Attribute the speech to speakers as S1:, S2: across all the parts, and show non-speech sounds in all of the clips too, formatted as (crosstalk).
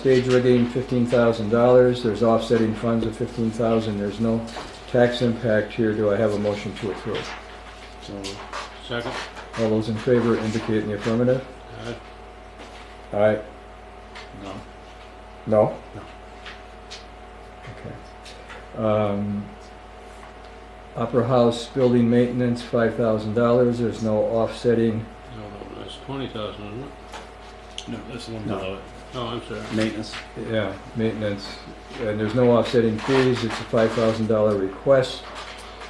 S1: Stage rigging, fifteen thousand dollars, there's offsetting funds of fifteen thousand, dollars there's no tax impact here, do I have a motion to approve?
S2: Second.
S1: All those in favor indicate in the affirmative.
S2: Aye.
S1: Aye.
S2: No.
S1: No?
S2: No.
S1: Okay. Um, Opera House building maintenance, five thousand dollars, there's no offsetting,
S2: No, no, that's twenty thousand, isn't it?
S3: No, that's the one
S1: No.
S3: below
S2: No, I'm sorry.
S3: it. Maintenance.
S1: yeah, maintenance, and there's no offsetting fees, it's a five thousand dollar request.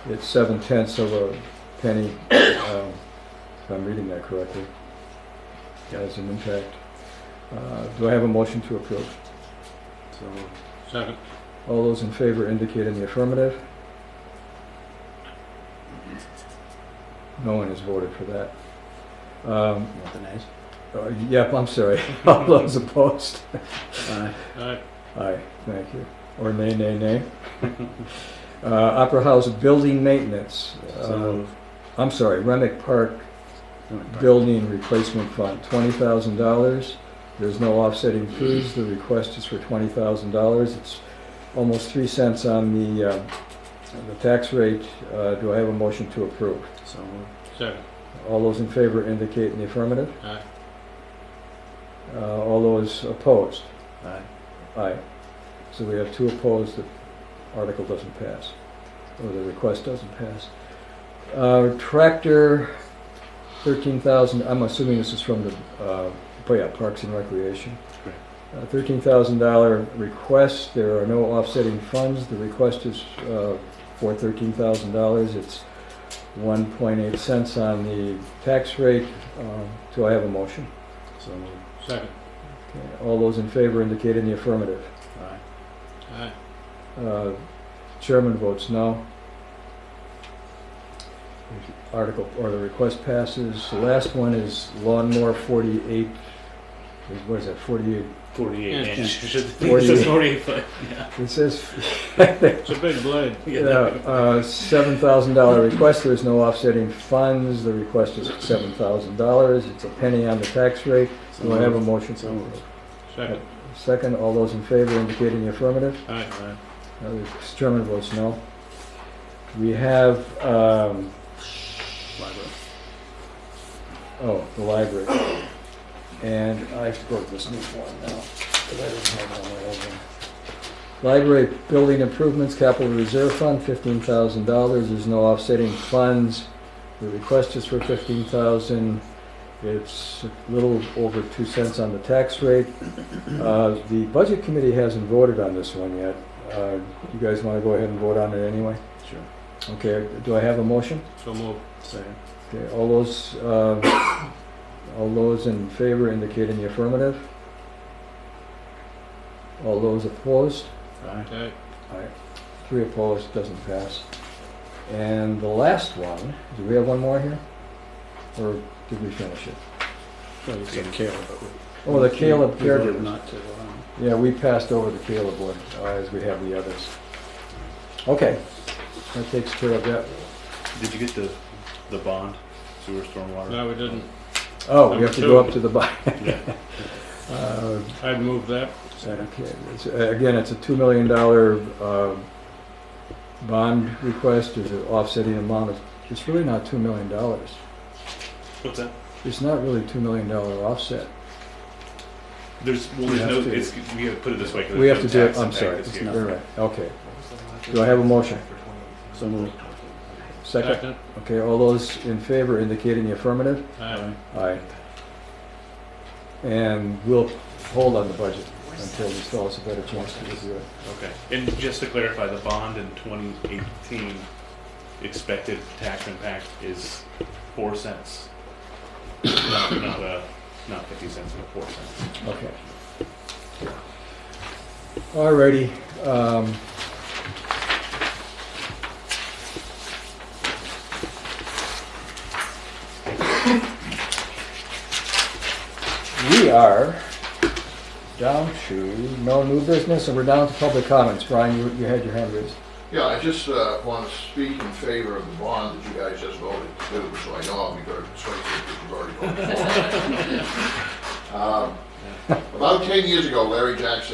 S1: It's seven tenths of a penny, um, if I'm reading that correctly. As an impact. Uh, do I have a motion to approve?
S3: So
S2: Second.
S1: All those in favor indicate in the affirmative. No one has voted for that. Um,
S3: you want the nays?
S1: uh, Yep, I'm sorry. (laughs) All those opposed?
S3: Aye.
S2: Aye.
S1: Aye, thank you. Or nay, nay, nay. Uh, Opera House Building Maintenance.
S3: So
S1: Uh,
S3: moved.
S1: I'm sorry, Remick Park Building Replacement Fund, $20,000. There's no offsetting fees. The request is for $20,000. It's almost 3 cents on the, uh, the tax rate. Uh, Do I have a motion to approve?
S3: So moved.
S2: Second.
S1: All those in favor indicate in the affirmative.
S2: Aye.
S1: Uh, All those opposed?
S3: Aye.
S1: Aye. So we have two opposed, the article doesn't pass, or the request doesn't pass. Uh, Tractor, thirteen thousand, I'm assuming this is from the, uh, oh yeah, Parks and Recreation.
S3: Correct.
S1: Uh, Thirteen thousand dollar request, there are no offsetting funds, the request is uh, for thirteen thousand dollars, it's one point eight cents on the tax rate. Um, Do I have a motion?
S3: So moved.
S2: Second.
S1: Okay, All those in favor indicate in the affirmative.
S3: Aye.
S2: Aye.
S1: Uh, Chairman votes no. Article, or the request passes. The last one is lawnmower 48, what is that, 48?
S4: Forty-eight
S2: Yeah.
S4: inch. It says
S1: 48.
S4: Forty-eight foot.
S1: It says,
S2: It's a big blade.
S1: yeah, uh, $7,000 request, there's no offsetting funds, the request is $7,000, it's a penny on the tax rate.
S3: So
S1: Do I have a
S3: moved.
S1: motion?
S3: So moved.
S2: Second.
S1: Second, all those in favor indicating the affirmative.
S2: Aye.
S3: Aye.
S1: Uh, the Chairman votes no. We have, um,
S3: Library.
S1: Oh, the library. And I wrote this new form now, because I didn't have it on my old one. Library building improvements, capital reserve fund, fifteen thousand dollars, there's no offsetting funds. The request is for fifteen thousand, it's a little over two cents on the tax rate. Uh, the budget committee hasn't voted on this one yet. Uh, you guys wanna go ahead and vote on it anyway?
S3: Sure.
S1: Okay, do I have a motion?
S2: So moved.
S3: Second.
S1: Okay, all those, um, all those in favor indicate in the affirmative. All those opposed?
S3: Aye.
S2: Aye.
S1: Aye. Three opposed, doesn't pass. And the last one, do we have one more here? Or did we finish it?
S3: Well, you said Caleb, but we-
S1: Oh, the Caleb
S3: we voted
S1: caregivers.
S3: Not to, um,
S1: Yeah, we passed over the Caleb one, uh, as we have the others. Okay, that takes care of that.
S4: Did you get the, the bond, sewer stormwater?
S2: No, we didn't.
S1: Oh, we have to go up to the (laughs)
S4: Yeah.
S1: bottom. Uh,
S2: I'd move that.
S3: second.
S1: Okay, it's- Again, it's a $2 million uh, bond request, there's an offsetting amount of, it's really not $2 million.
S4: What's that?
S1: It's not really $2 million offset.
S4: There's, well,
S1: We
S4: there's
S1: have
S4: no,
S1: to-
S4: it's, we have to put it this way. 'cause
S1: We
S4: there's
S1: have to
S4: no
S1: do, it.
S4: tax
S1: I'm
S4: impact
S1: sorry,
S4: this
S1: it's
S4: year.
S1: not, you're right, okay. Do I have a motion?
S3: So moved.
S1: Second? Okay, all those in favor indicating the affirmative?
S2: Aye.
S1: Aye. And we'll hold on the budget until this fellows a better chance to review it.
S4: Okay, and just to clarify, the bond in twenty eighteen expected tax impact is four cents. (coughs) Not, not a, not fifty cents, but four cents.
S1: Okay. Alrighty, um. We are down to no new business, and we're down to public comments. Brian, you, you had your hand raised.
S5: Yeah, I just want to speak in favor of the bond that you guys just voted to, do, so I know I'll be very persuasive because you've already voted for it. Um, About ten years ago, Larry Jackson